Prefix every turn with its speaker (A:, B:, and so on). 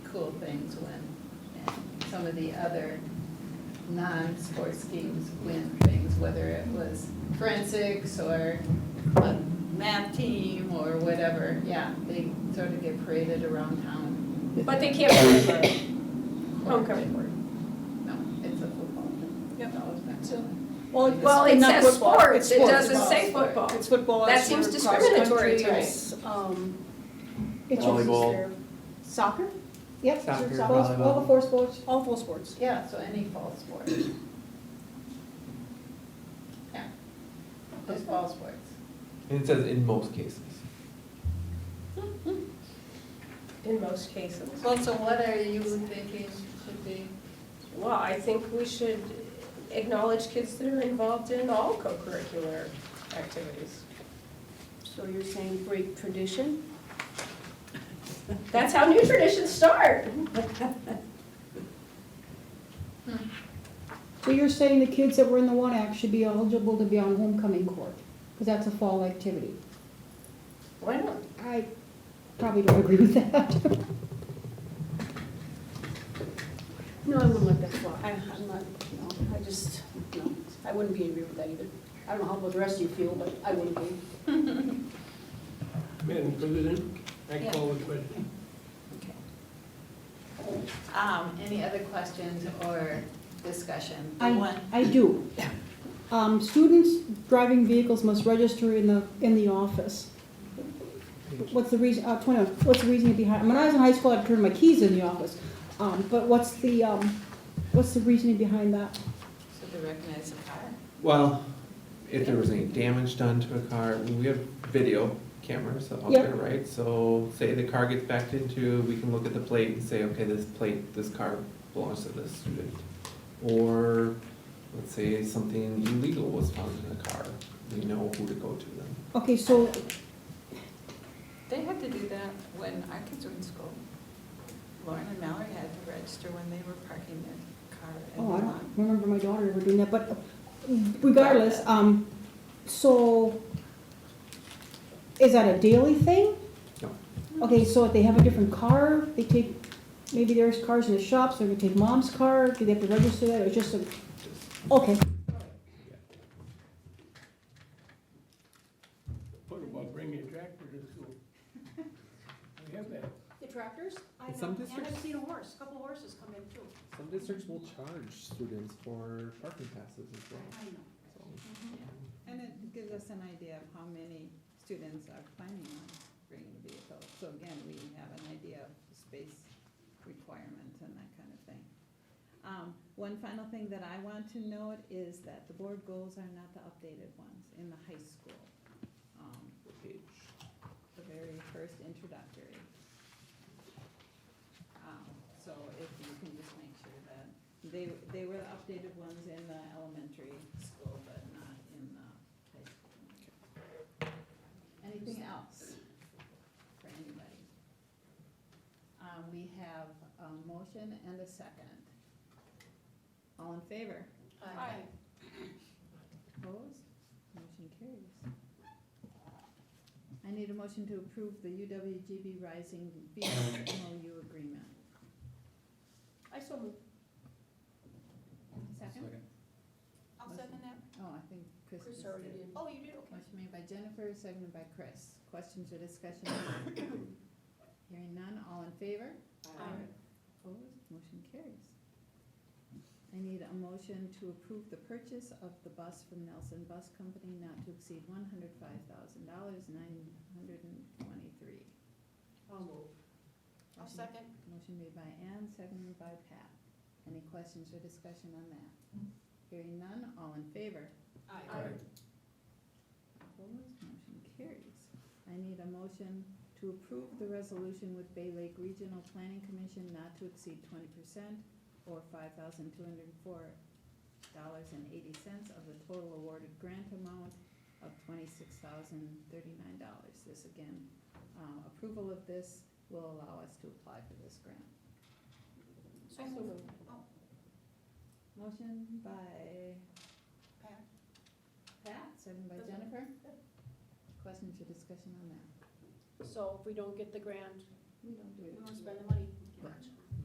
A: cool things win. And Some of the other non-sports games win things, whether it was forensics or a math team or whatever. Yeah, they sort of get paraded around town.
B: But they can't play for homecoming board.
A: No, it's a football thing.
B: Yep.
A: No, it's not.
B: So-
C: Well,
B: Well, it
C: it's not
B: says
C: football,
B: sports,
C: it's
B: it
C: sports.
B: doesn't say
A: Football.
B: football.
C: It's football.
B: That
C: it's
B: seems
C: your
B: discriminatory to
C: cross-country,
B: me.
C: it's, um,
D: It's
C: Volleyball.
D: your-
C: Soccer,
D: Yep, it's your
E: Soccer,
D: sports, all the
E: volleyball.
D: four sports.
C: all full sports.
A: Yeah, so any fall sport. Yeah, just fall sports.
E: And it says in most cases.
B: In most cases.
A: Well, so what are you thinking should be?
B: Well, I think we should acknowledge kids that are involved in all co-curricular activities.
C: So you're saying break tradition?
B: That's how new traditions start.
D: So you're saying the kids that were in the one act should be eligible to be on homecoming court, because that's a fall activity.
B: Why not?
D: I probably don't agree with that.
C: No, I wouldn't let that fly. I, I'm not, no, I just, no, I wouldn't be in agreement with that either. I don't know how the rest of you feel, but I wouldn't be.
F: Madam President, I
A: Yeah.
F: call the question.
A: Um, any other questions or discussion? The
D: I-
A: one-
D: I do. Um, students driving vehicles must register in the, in the office. What's the reason, uh, twenty, what's the reason behind, when I was in high school, I'd turn my keys in the office. Um, but what's the, um, what's the reasoning behind that?
A: So to recognize the car?
E: Well, if there was any damage done to a car, we have video cameras out
D: Yeah.
E: there, right? So say the car gets backed into, we can look at the plate and say, okay, this plate, this car belongs to this student. Or, let's say something illegal was found in the car, we know who to go to then.
D: Okay, so
A: They had to do that when our kids were in school. Lauren and Mallory had to register when they were parking their car in
D: Oh,
A: the
D: I don't
A: lawn.
D: remember my daughter ever doing that, but regardless, um, so is that a daily thing?
E: No.
D: Okay, so if they have a different car, they take, maybe there's cars in the shops, they're gonna take mom's car, do they have to register that, or just a, okay,
F: What about bringing a tractor to school? We have that.
C: The tractors? I
E: In some
C: know, and I've
E: districts-
C: seen a horse, a couple horses come in too.
E: Some districts will charge students for parking passes as well,
C: I know.
E: so.
A: And it gives us an idea of how many students are planning on bringing vehicles. So again, we have an idea of space requirements and that kind of thing. Um, one final thing that I want to note is that the board goals are not the updated ones in the high school. Um, the very first introductory. Um, so if you can just make sure that, they, they were the updated ones in the elementary school, but not in the high school. Anything else for anybody? Um, we have a motion and a second. All in favor?
B: Aye.
A: Opposed? Motion carries. I need a motion to approve the UWGB Rising Beach MOU agreement.
C: I saw them.
A: Second?
C: I'll
A: second
C: that.
A: Oh, I think Chris just did.
C: Oh, you did,
A: Motion made by Jennifer, seconded by Chris. Questions or discussion? Hearing none, all in favor?
B: Aye.
A: Opposed, motion carries. I need a motion to approve the purchase of the bus from Nelson Bus Company not to exceed one hundred five thousand dollars, nine hundred and twenty-three.
C: I'll move.
A: I'll second. Motion made by Ann, seconded by Pat. Any questions or discussion on that? Hearing none, all in favor? Opposed, motion carries. I need a motion to approve the resolution with Bay Lake Regional Planning Commission not to exceed twenty percent or five thousand two hundred and four dollars and eighty cents of the total awarded grant amount of twenty-six thousand thirty-nine dollars. This again, um, approval of this will allow us to apply for this grant. Oh.
B: I so moved.
A: Motion by?
B: Pat.
A: Pat, second by Jennifer. Questions or discussion on that?
C: So if we don't get the grant,
A: We don't do it.
C: we won't spend the money.
A: Gotcha.